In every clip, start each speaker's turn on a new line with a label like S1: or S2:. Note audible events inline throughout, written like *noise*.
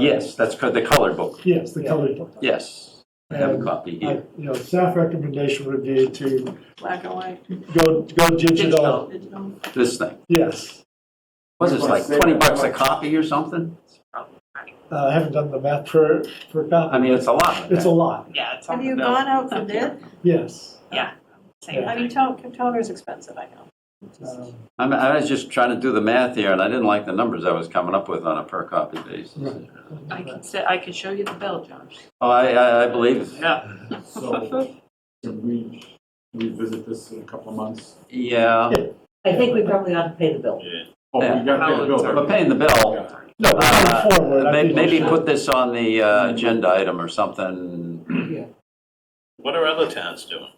S1: Yes, that's co- the color book.
S2: Yes, the colored book.
S1: Yes, I have a copy
S2: I-
S1: here.
S2: You know, staff recommendation would be to
S3: Black and white,
S2: go, go digital.
S3: digital, digital.
S1: This thing.
S2: Yes,
S1: Was this like 20 bucks a copy or something?
S2: Uh, I haven't done the math for, for
S1: I
S2: copy.
S1: mean, it's a lot.
S2: It's a lot,
S4: Yeah, it's on
S3: Have
S4: the
S3: you
S4: bill.
S3: gone out for bid?
S2: yes.
S4: Same
S3: I mean,
S4: thing.
S3: tone, toner's expensive, I know.
S2: Um,
S1: I'm, I was just trying to do the math here, and I didn't like the numbers I was coming up with on a per copy basis.
S2: Right.
S3: I can say, I can show you the bill, Josh.
S1: Oh, I, I, I believe,
S4: Yeah,
S1: *laughs*
S5: So, can we revisit this in a couple of months?
S1: yeah,
S6: I think we probably ought to pay the bill.
S5: Oh,
S1: Yeah.
S5: we got the bill.
S1: but paying the bill.
S2: No,
S1: uh,
S2: going forward, I
S1: may-
S2: think we
S1: Maybe
S2: should-
S1: put this on the uh, agenda item or something.
S7: What are other towns doing?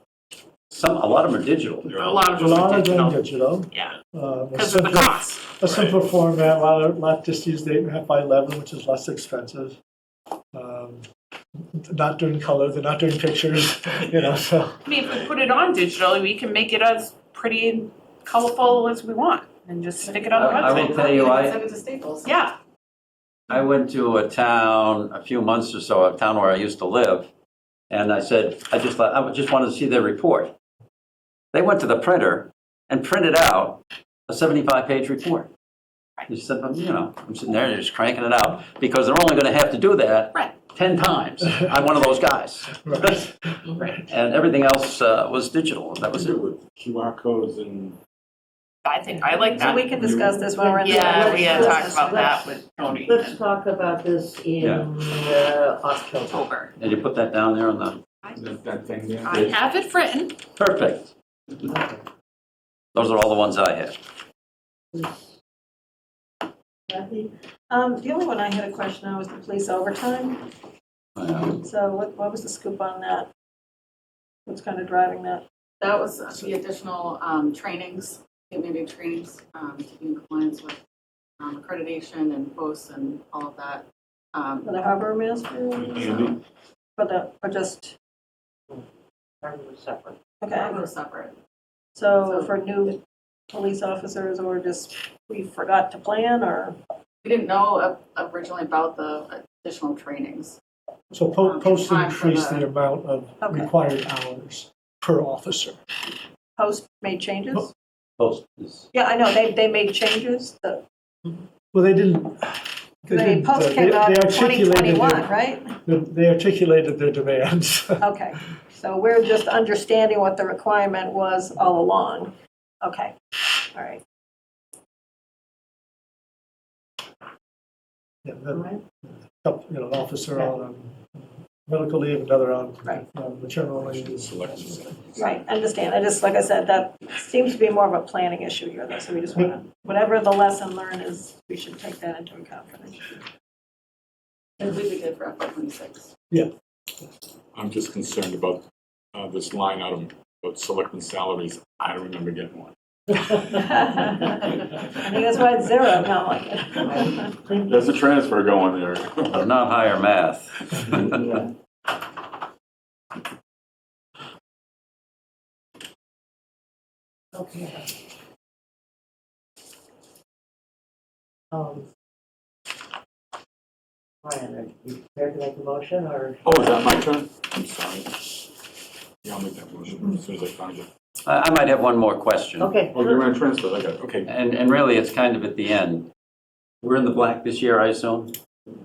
S1: Some, a lot of them are digital.
S7: They're
S4: a
S7: all-
S4: lot of
S2: A lot
S4: them are
S2: of them
S4: digital.
S2: digital.
S4: Yeah,
S2: Um, a
S1: *laughs*
S4: because of the
S2: simple-
S4: cost.
S2: A simple format, a lot of, lot just use the eight and a half by eleven, which is less expensive. Um, Not doing color, they're not doing pictures, *laughs* you know, so,
S4: I mean, if we put it on digital, we can make it as pretty and colorful as we want and just stick it on the
S1: I- I
S4: website.
S1: will tell you, I,
S3: Send it to Staples.
S4: Yeah,
S1: I went to a town a few months or so, a town where I used to live, and I said, I just, thought- I just wanted to see their report. They went to the printer and printed out a 75-page report. You said, "Well, you know, I'm sitting there, just cranking it out, because they're only going to have to do that
S4: Right.
S1: 10 times. I'm one of those guys.
S2: right.
S1: *laughs* And everything else uh, was digital, that was
S5: Was
S1: it.
S5: it with QR codes and?
S4: I think, I like
S3: So
S4: that.
S3: we can discuss this when we're in. the-
S4: Yeah, we had talked
S6: talk
S4: about that with Tony
S6: Let's
S4: in
S6: talk about this in
S1: Yeah.
S6: uh, October.
S4: October.
S1: Did you put that down there on the,
S5: That, that thing there?
S4: I have it written.
S1: perfect. Those are all the ones I had.
S3: Um, the only one I had a question on was the police overtime,
S1: Yeah.
S3: so what, what was the scoop on that? What's kind of driving that?
S8: That was the additional um, trainings, community trainings, um, to be in compliance with um, accreditation and posts and all of that. Um,
S3: For the harbor master,
S5: Andy?
S3: for the, or just, okay,
S8: That was separate.
S3: so for new police officers, or just, we forgot to plan, or?
S8: We didn't know o- originally about the additional trainings.
S2: So po-
S8: Um,
S2: post
S8: time for
S2: increase
S8: the-
S2: the amount of
S3: Okay.
S2: required hours per officer.
S3: Post made changes?
S1: Post is-
S3: Yeah, I know, they, they made changes, the,
S2: Well, they didn't. they
S3: the
S2: didn't, uh,
S3: post
S2: they-
S3: came out
S2: they
S3: in
S2: articulated their-
S3: 2021, right?
S2: they- They articulated their demands. *laughs*
S3: Okay, so we're just understanding what the requirement was all along. Okay, all right.
S2: Yeah, the- You know, an officer on um, medical leave, another on
S3: Right.
S2: um, maternal leave.
S3: Right, understand. I just, like I said, that seems to be more of a planning issue here, though, so we just want to, whatever the lesson learned is, we should take that into account *laughs* for this.
S8: I believe we did for FY twenty-six.
S5: I'm just concerned about, uh, this line item, about selectmen salaries. I don't remember getting one.
S3: I think that's why it's zero, no, like,
S5: There's a transfer going there.
S1: But not higher math.
S6: Okay. Um, Brian, are you prepared to make a motion or?
S5: Oh, is that my turn? I'm sorry. Yeah, I'll make that motion as soon as I find it.
S1: I I might have one more question,
S6: Okay.
S5: Oh, you're on transfer, I got it, okay.
S1: and, and really, it's kind of at the end. We're in the black this year, I assume?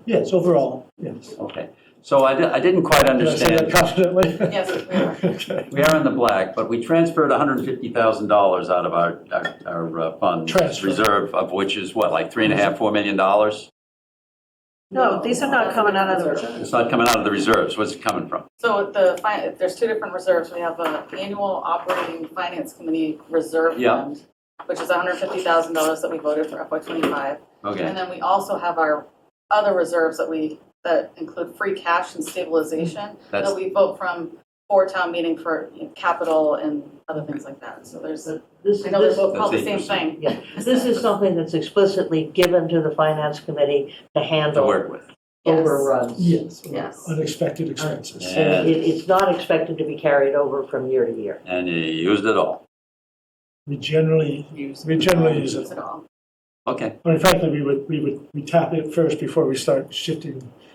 S2: Yes, overall, yes.
S1: Okay, so I, di- I didn't quite
S2: Did I say that
S1: understand.
S2: confidently?
S8: *laughs* Yes, we were.
S2: Okay.
S1: We are in the black, but we transferred $150,000 out of our, our- our uh, fund.
S2: Transfer.
S1: Reserve, of which is what, like three and a half, four million dollars?
S3: no, these are not coming out of the,
S1: It's not coming out of the reserves, where's it coming from?
S8: So the, fi- there's two different reserves. We have a annual operating finance committee reserve
S1: Yeah.
S8: fund, which is hundred fifty thousand dollars that we voted for FY twenty-five.
S1: Okay,
S8: And then we also have our other reserves that we, that include free cash and stabilization,
S1: Mm, that's,
S8: that we vote from for town meeting for you know, capital and other things like that. So there's, I
S6: This,
S8: know they're
S6: this,
S8: both called the same
S1: That's
S8: thing.
S6: yeah, this is something that's explicitly given to the finance committee to
S1: to
S6: handle
S1: work with.
S8: Yes.
S6: overruns.
S2: Yes,
S8: Yes.
S2: unexpected expenses.
S1: Yeah.
S6: It, it's not expected to be carried over from year to year.
S1: And you used it all.
S2: We generally,
S4: Use.
S2: we generally use
S8: Use
S2: it.
S8: it all.
S1: Okay.
S2: I mean, frankly, we would, we would, we tap it first before we start shifting